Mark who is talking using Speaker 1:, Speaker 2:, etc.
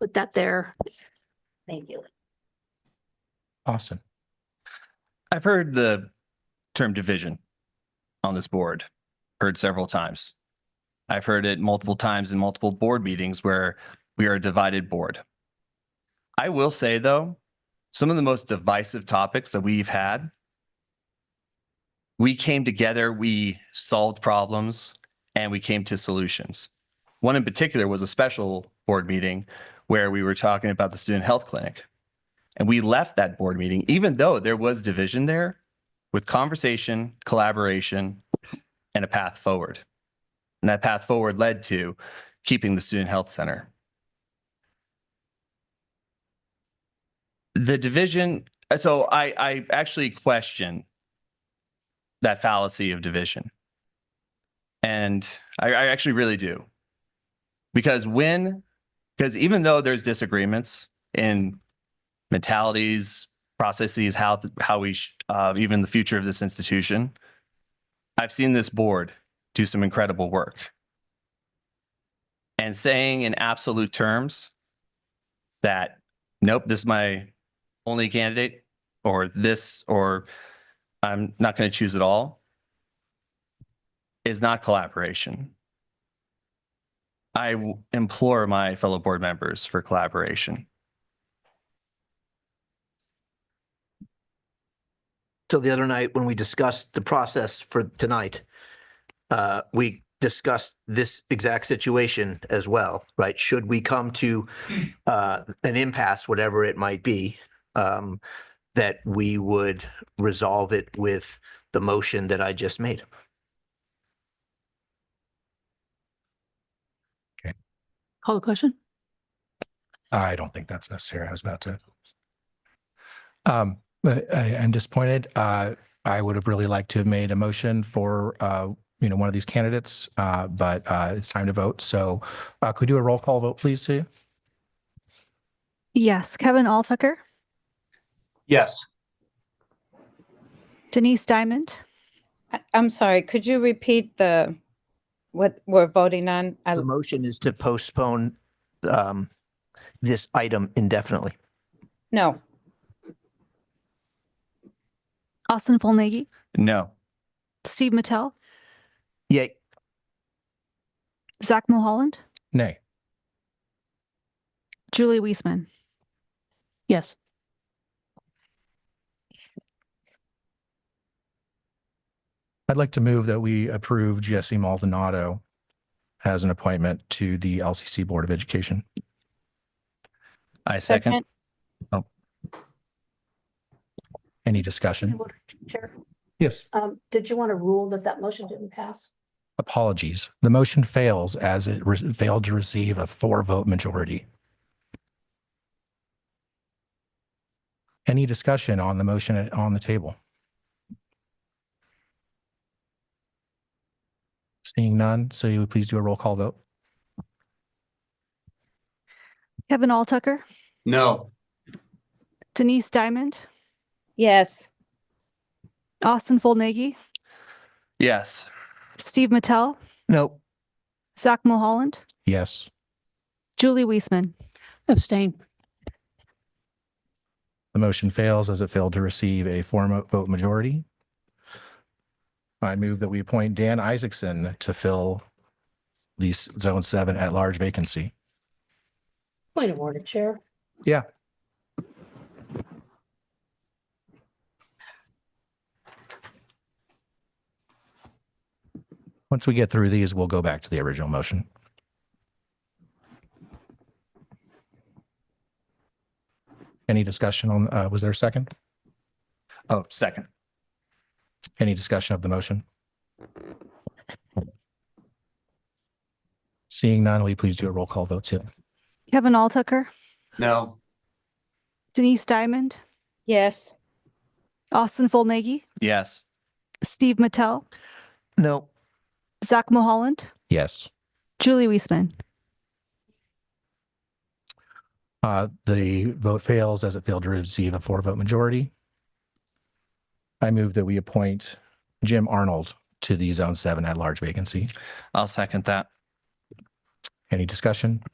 Speaker 1: put that there.
Speaker 2: Thank you.
Speaker 3: Awesome.
Speaker 4: I've heard the term division on this board, heard several times. I've heard it multiple times in multiple board meetings where we are a divided board. I will say, though, some of the most divisive topics that we've had, we came together, we solved problems, and we came to solutions. One in particular was a special board meeting where we were talking about the student health clinic. And we left that board meeting, even though there was division there, with conversation, collaboration, and a path forward. And that path forward led to keeping the Student Health Center. The division, so I, I actually question that fallacy of division. And I, I actually really do. Because when, because even though there's disagreements in mentalities, processes, how th- how we sh- uh, even the future of this institution. I've seen this board do some incredible work. And saying in absolute terms that nope, this is my only candidate, or this, or I'm not going to choose at all, is not collaboration. I w- implore my fellow board members for collaboration.
Speaker 5: So the other night, when we discussed the process for tonight, uh, we discussed this exact situation as well, right? Should we come to uh, an impasse, whatever it might be, um, that we would resolve it with the motion that I just made?
Speaker 1: Call the question?
Speaker 3: I don't think that's necessary. I was about to. Um, but I am disappointed. Uh, I would have really liked to have made a motion for, uh, you know, one of these candidates, uh, but, uh, it's time to vote. So, uh, could we do a roll call vote, please, Sue?
Speaker 6: Yes, Kevin Alltucker,
Speaker 7: Yes.
Speaker 6: Denise Diamond,
Speaker 8: I- I'm sorry, could you repeat the, what we're voting on? I-
Speaker 5: The motion is to postpone um, this item indefinitely.
Speaker 8: No,
Speaker 6: Austin Fullnagy,
Speaker 4: No.
Speaker 6: Steve Mattel,
Speaker 5: Yay.
Speaker 6: Zach Mulholland,
Speaker 3: Nay.
Speaker 6: Julie Weisman.
Speaker 1: Yes.
Speaker 3: I'd like to move that we approve Jesse Maldonado as an appointment to the LCC Board of Education.
Speaker 4: I second.
Speaker 8: Second.
Speaker 3: Any discussion?
Speaker 2: Chair,
Speaker 3: Yes.
Speaker 2: um, did you want to rule that that motion didn't pass?
Speaker 3: Apologies. The motion fails as it re- failed to receive a four vote majority. Any discussion on the motion at- on the table? Seeing none, so you would please do a roll call vote.
Speaker 6: Kevin Alltucker,
Speaker 7: No.
Speaker 6: Denise Diamond,
Speaker 8: yes,
Speaker 6: Austin Fullnagy,
Speaker 4: Yes.
Speaker 6: Steve Mattel,
Speaker 5: No.
Speaker 6: Zach Mulholland,
Speaker 3: Yes.
Speaker 6: Julie Weisman.
Speaker 1: Abstain.
Speaker 3: The motion fails as it failed to receive a four mo- vote majority. I move that we appoint Dan Isaacson to fill the s- Zone 7 at-large vacancy.
Speaker 2: Point of order, Chair.
Speaker 3: Yeah. Once we get through these, we'll go back to the original motion. Any discussion on, uh, was there a second?
Speaker 4: Oh, second.
Speaker 3: Any discussion of the motion? Seeing none, will you please do a roll call vote, too?
Speaker 6: Kevin Alltucker,
Speaker 7: No.
Speaker 6: Denise Diamond,
Speaker 8: yes.
Speaker 6: Austin Fullnagy,
Speaker 4: Yes.
Speaker 6: Steve Mattel,
Speaker 5: No.
Speaker 6: Zach Mulholland,
Speaker 3: Yes.
Speaker 6: Julie Weisman.
Speaker 3: Uh, the vote fails as it failed to receive a four vote majority. I move that we appoint Jim Arnold to the Zone 7 at large vacancy.
Speaker 4: I'll second that.
Speaker 3: Any discussion?